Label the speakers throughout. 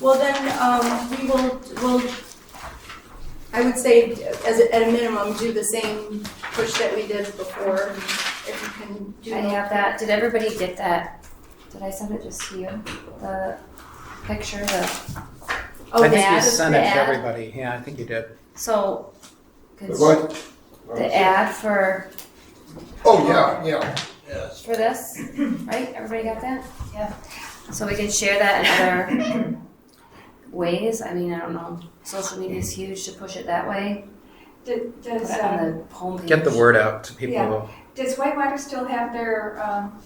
Speaker 1: Well, then, um, we will, will, I would say, as, a- at a minimum, do the same push that we did before, if you can do.
Speaker 2: I have that. Did everybody get that? Did I send it just to you? The picture, the,
Speaker 1: Oh,
Speaker 3: I think you
Speaker 2: ad,
Speaker 3: sent
Speaker 2: the
Speaker 3: it to
Speaker 2: ad.
Speaker 3: everybody. Yeah, I think you did.
Speaker 2: so. cons-
Speaker 4: What?
Speaker 2: The ad for,
Speaker 4: Oh, yeah, yeah. Yes.
Speaker 2: for this, right? Everybody got that?
Speaker 5: Yeah.
Speaker 2: So we can share that in other ways. I mean, I don't know. Social media is huge to push it that way.
Speaker 5: Does,
Speaker 2: Put it
Speaker 5: does, um,
Speaker 2: on the homepage.
Speaker 3: Get the word out to people.
Speaker 5: Yeah. does Whitewater still have their, um,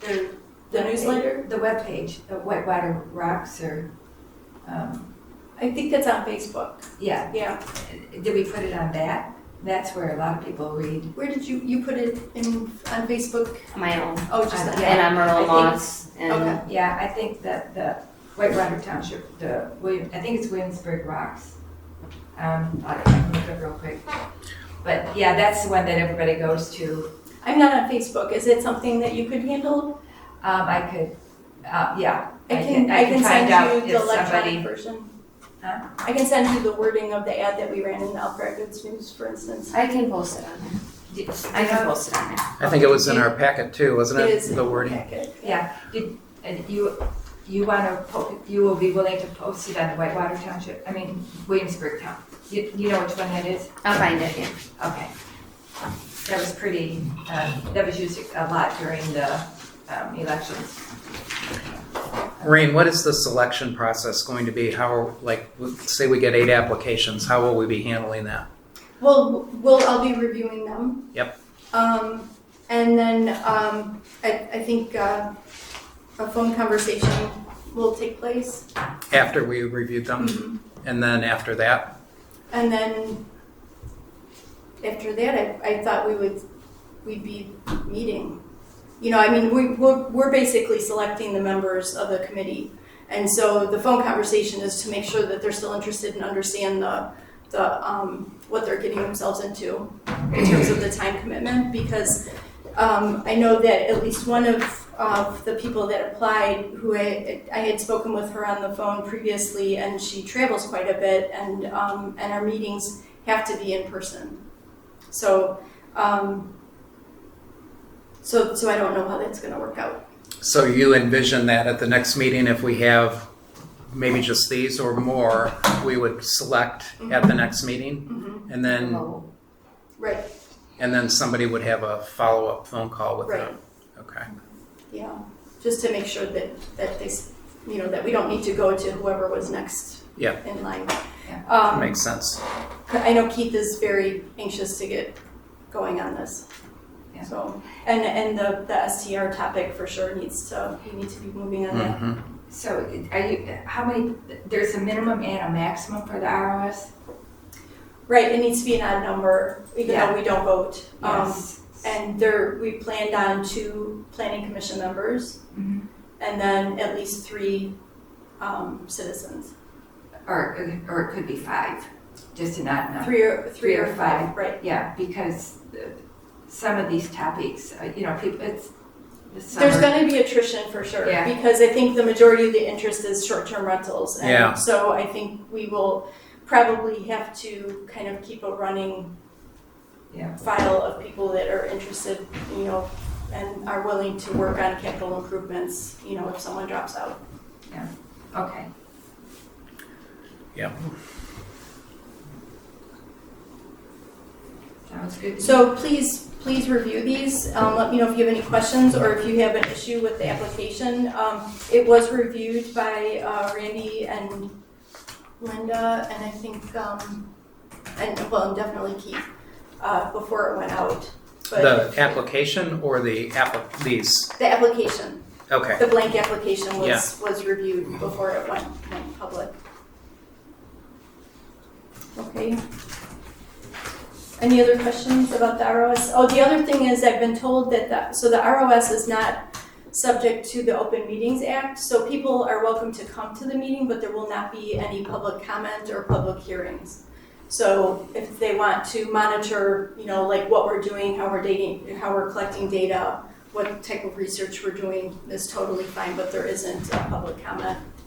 Speaker 5: their?
Speaker 1: The newsletter?
Speaker 5: The webpage, the Whitewater Rocks or, um,
Speaker 1: I think that's on Facebook,
Speaker 5: yeah,
Speaker 1: yeah.
Speaker 5: did we put it on that? That's where a lot of people read.
Speaker 1: Where did you, you put it in, on Facebook?
Speaker 2: My own.
Speaker 1: Oh, just
Speaker 5: Uh,
Speaker 1: that.
Speaker 5: yeah.
Speaker 2: And Amarillo
Speaker 5: think-
Speaker 2: Moss and,
Speaker 1: Okay.
Speaker 5: Yeah, I think that the Whitewater Township, the William, I think it's Williamsburg Rocks. Um, I'll I'll look it up real quick. But yeah, that's the one that everybody goes to.
Speaker 1: I'm not on Facebook, is it something that you could handle?
Speaker 5: Um, I could, uh, yeah.
Speaker 1: I can, I can
Speaker 5: find out
Speaker 1: send you
Speaker 5: if
Speaker 1: the
Speaker 5: somebody.
Speaker 1: electronic version.
Speaker 5: Huh?
Speaker 1: I can send you the wording of the ad that we ran in the Alfred Goods News, for instance.
Speaker 2: I can post it on there.
Speaker 5: Did-
Speaker 2: I can post it on there.
Speaker 3: I think it was in our packet too, wasn't it?
Speaker 1: It is in
Speaker 3: The wording.
Speaker 1: packet.
Speaker 5: Yeah, did, and you, you wanna, po- you will be willing to post it on the Whitewater Township, I mean Williamsburg Town. You, you know which one that is?
Speaker 2: I'll find it, yeah.
Speaker 5: Okay. That was pretty, um, that was used a lot during the, um, elections.
Speaker 3: Maureen, what is the selection process going to be? How, are like, say we get eight applications, how will we be handling that?
Speaker 1: Well, we'll, I'll be reviewing them.
Speaker 3: Yep.
Speaker 1: Um, and then, um, I, I think, uh, a phone conversation will take place.
Speaker 3: After we reviewed them, and then after that?
Speaker 1: And then, after that, I, I thought we would, we'd be meeting. You know, I mean, we, we're, we're basically selecting the members of the committee. And so the phone conversation is to make sure that they're still interested and understand the, the, um, what they're getting themselves into in terms of the time commitment, because, um, I know that at least one of, of the people that applied, who I, I had spoken with her on the phone previously, and she travels quite a bit, and, um, and our meetings have to be in person. So, um, so, so I don't know how that's gonna work out.
Speaker 3: So you envision that at the next meeting, if we have maybe just these or more, we would select at the next meeting? And then,
Speaker 2: Vote.
Speaker 1: Right,
Speaker 3: and then somebody would have a follow-up phone call with
Speaker 1: right,
Speaker 3: them? Okay.
Speaker 1: yeah, just to make sure that, that they, s- you know, that we don't need to go to whoever was next
Speaker 3: Yeah.
Speaker 1: in line.
Speaker 5: Yeah.
Speaker 1: Um,
Speaker 3: Makes sense.
Speaker 1: I know Keith is very anxious to get going on this.
Speaker 5: Yeah.
Speaker 1: So, and, and the, the STR topic for sure needs to, we need to be moving on that.
Speaker 3: Mhm.
Speaker 5: So are you, how many, there's a minimum and a maximum for the ROS?
Speaker 1: Right, it needs to be an odd number, even though we don't vote. Um,
Speaker 5: Yes.
Speaker 1: And there, we planned on two planning commission members
Speaker 5: Mhm.
Speaker 1: and then at least three, um, citizens.
Speaker 5: Or, or it could be five, just an odd number.
Speaker 1: Three or, three
Speaker 5: Three
Speaker 1: or
Speaker 5: or
Speaker 1: five, right.
Speaker 5: Yeah, because uh, some of these topics, uh, you know, people, it's. some
Speaker 1: There's
Speaker 5: are-
Speaker 1: gonna be attrition for sure,
Speaker 5: Yeah.
Speaker 1: because I think the majority of the interest is short-term rentals. and
Speaker 3: Yeah.
Speaker 1: So I think we will probably have to kind of keep a running
Speaker 5: Yeah.
Speaker 1: file of people that are interested, you know, and are willing to work on capital improvements, you know, if someone drops out.
Speaker 5: Okay.
Speaker 3: Yep.
Speaker 5: Sounds good.
Speaker 1: So please, please review these. Um, let me know if you have any questions or if you have an issue with the application. Um, it was reviewed by, uh, Randy and Linda and I think, um, and, well, and definitely Keith, uh, before it went out. But
Speaker 3: The application or the app, these?
Speaker 1: the application,
Speaker 3: Okay.
Speaker 1: the blank application
Speaker 3: Yeah.
Speaker 1: was, was reviewed before it went, went public. Okay. Any other questions about the ROS? Oh, the other thing is I've been told that the, so the ROS is not subject to the Open Meetings Act, so people are welcome to come to the meeting, but there will not be any public comment or public hearings. So if they want to monitor, you know, like what we're doing, how we're dating, how we're collecting data, what type of research we're doing is totally fine, but there isn't a public comment